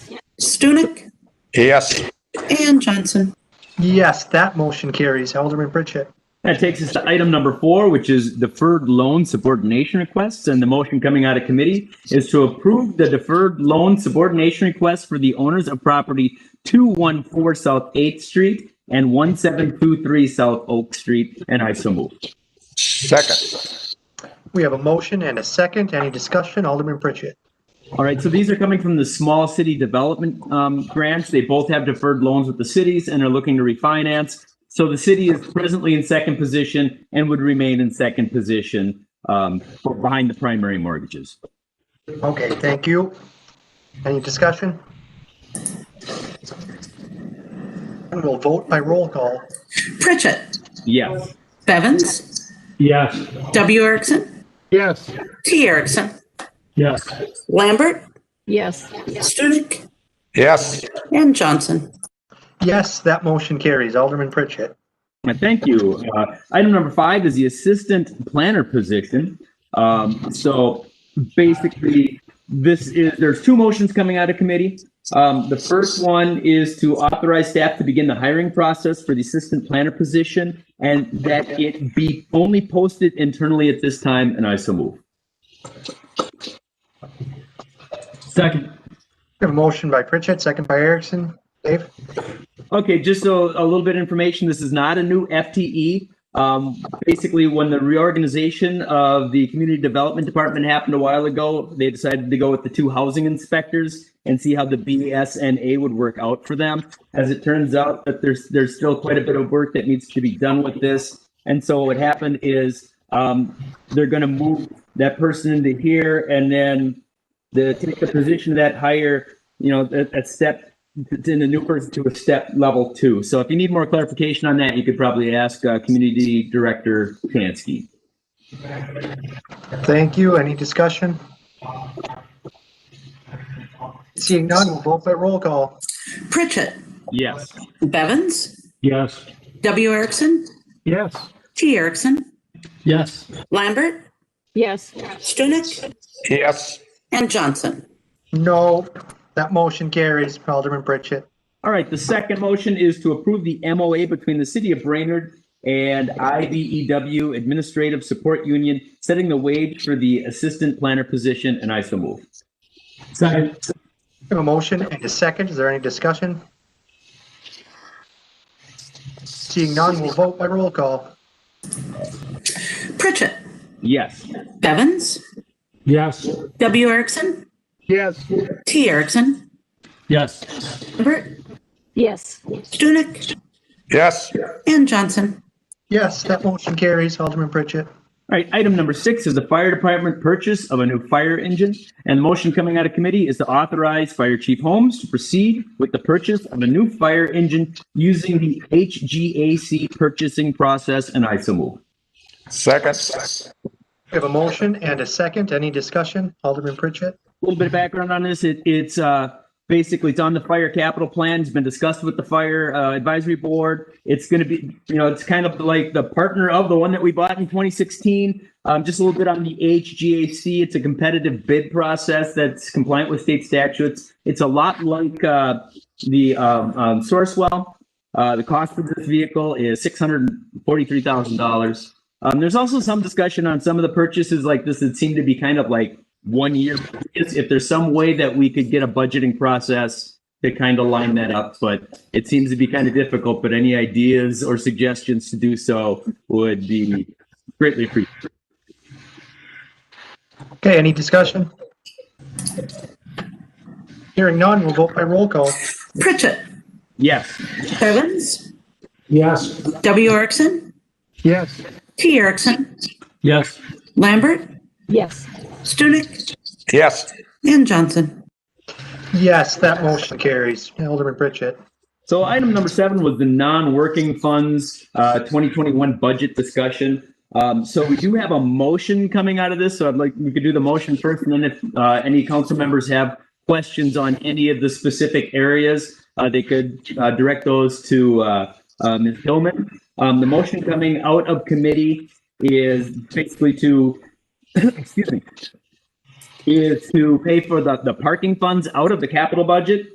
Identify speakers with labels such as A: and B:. A: Stunek
B: Yes.
A: and Johnson.
C: Yes, that motion carries. Alderman Pritchett.
D: That takes us to item number four, which is deferred loan subordination requests. And the motion coming out of committee is to approve the deferred loan subordination request for the owners of property 214 South 8th Street and 1723 South Oak Street. And I so move.
B: Second.
C: We have a motion and a second. Any discussion? Alderman Pritchett.
D: All right, so these are coming from the small city development um, grants. They both have deferred loans with the cities and are looking to refinance. So the city is presently in second position and would remain in second position um, behind the primary mortgages.
C: Okay, thank you. Any discussion? And we'll vote by roll call.
A: Pritchett,
D: Yes.
A: Bevins,
E: Yes.
A: W. Erickson,
E: Yes.
A: T. Erickson,
E: Yes.
A: Lambert,
F: yes,
A: Stunek,
B: Yes.
A: and Johnson.
C: Yes, that motion carries. Alderman Pritchett.
D: Uh, Thank you. Uh, Item number five is the assistant planner position. Um, So basically, this is, there's two motions coming out of committee. Um, The first one is to authorize staff to begin the hiring process for the assistant planner position and that it be only posted internally at this time, and I so move.
E: Second.
C: We have a motion by Pritchett, second by Erickson. Dave?
D: Okay, just so a little bit of information, this is not a new FTE. Um, basically, when the reorganization of the community development department happened a while ago, they decided to go with the two housing inspectors and see how the BSNA would work out for them. As it turns out that there's, there's still quite a bit of work that needs to be done with this. And so what happened is, um, they're gonna move that person into here and then the, take the position of that hire, you know, that, that step in the new person to a step level two. So if you need more clarification on that, you could probably ask uh, Community Director Kansky.
C: Thank you. Any discussion? Seeing none, we'll vote by roll call.
A: Pritchett,
D: Yes.
A: Bevins,
E: Yes.
A: W. Erickson,
E: Yes.
A: T. Erickson,
E: Yes.
A: Lambert,
F: yes,
A: Stunek,
B: Yes.
A: and Johnson.
C: No, that motion carries. Alderman Pritchett.
D: All right. The second motion is to approve the MOA between the City of Brainerd and IBEW Administrative Support Union, setting the wage for the assistant planner position, and I so move.
E: Second.
C: We have a motion and a second. Is there any discussion? Seeing none, we'll vote by roll call.
A: Pritchett,
D: Yes.
A: Bevins,
E: Yes.
A: W. Erickson,
E: Yes.
A: T. Erickson,
E: Yes.
A: Lambert,
F: yes,
A: Stunek,
B: Yes.
A: and Johnson.
C: Yes, that motion carries. Alderman Pritchett.
D: All right, item number six is the fire department purchase of a new fire engine. And the motion coming out of committee is to authorize Fire Chief Holmes to proceed with the purchase of a new fire engine using the HGAC purchasing process, and I so move.
B: Second.
C: We have a motion and a second. Any discussion? Alderman Pritchett.
D: A little bit of background on this. It, it's uh, basically it's on the fire capital plan. It's been discussed with the fire uh, advisory board. It's going to be, you know, it's kind of like the partner of the one that we bought in 2016. Um, just a little bit on the HGAC. It's a competitive bid process that's compliant with state statutes. It's a lot like uh, the um, um, Sourcewell. Uh, the cost of this vehicle is six hundred forty-three thousand dollars. Um, there's also some discussion on some of the purchases like this that seem to be kind of like one year. purchase. If there's some way that we could get a budgeting process to kind of line that up, but it seems to be kind of difficult. But any ideas or suggestions to do so would be greatly appreciated.
C: Okay, any discussion? Hearing none, we'll vote by roll call.
A: Pritchett,
D: Yes.
A: Bevins,
E: Yes.
A: W. Erickson,
E: Yes.
A: T. Erickson,
E: Yes.
A: Lambert,
F: yes,
A: Stunek,
B: Yes.
A: and Johnson.
C: Yes, that motion carries. Alderman Pritchett.
D: So item number seven was the non-working funds uh, 2021 budget discussion. Um, So we do have a motion coming out of this, so I'd like, we could do the motion first, and then if uh, any council members have questions on any of the specific areas, uh, they could uh, direct those to uh, uh, Ms. Hillman. Um, The motion coming out of committee is basically to, excuse me, is to pay for the the parking funds out of the capital budget